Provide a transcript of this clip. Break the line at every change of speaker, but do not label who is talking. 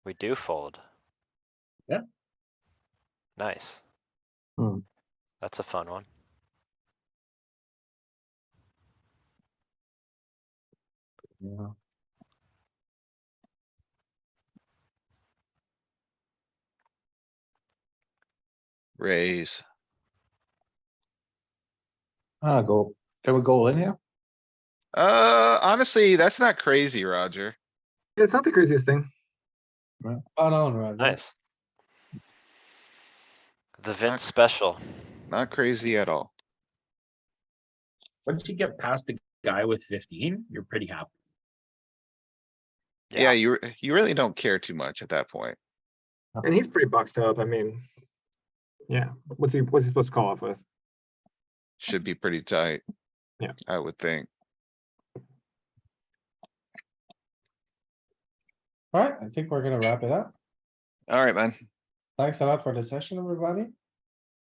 We do fold.
Yeah.
Nice.
Hmm.
That's a fun one.
Yeah.
Raise.
Ah, go, can we go in here?
Uh, honestly, that's not crazy, Roger.
It's not the craziest thing.
Spot on, Roger.
Nice. The Vince
Okay.
special.
Not crazy at all.
Once you get past the guy with fifteen, you're pretty happy.
Yeah.
Yeah, you, re- you really don't care too much at that point.
And he's pretty boxed up. I mean, yeah. What's he what's he supposed to call off with?
Should be pretty tight.
Yeah.
I would think.
Alright, I think we're gonna wrap it up.
Alright, man.
Thanks a lot for the session, everybody.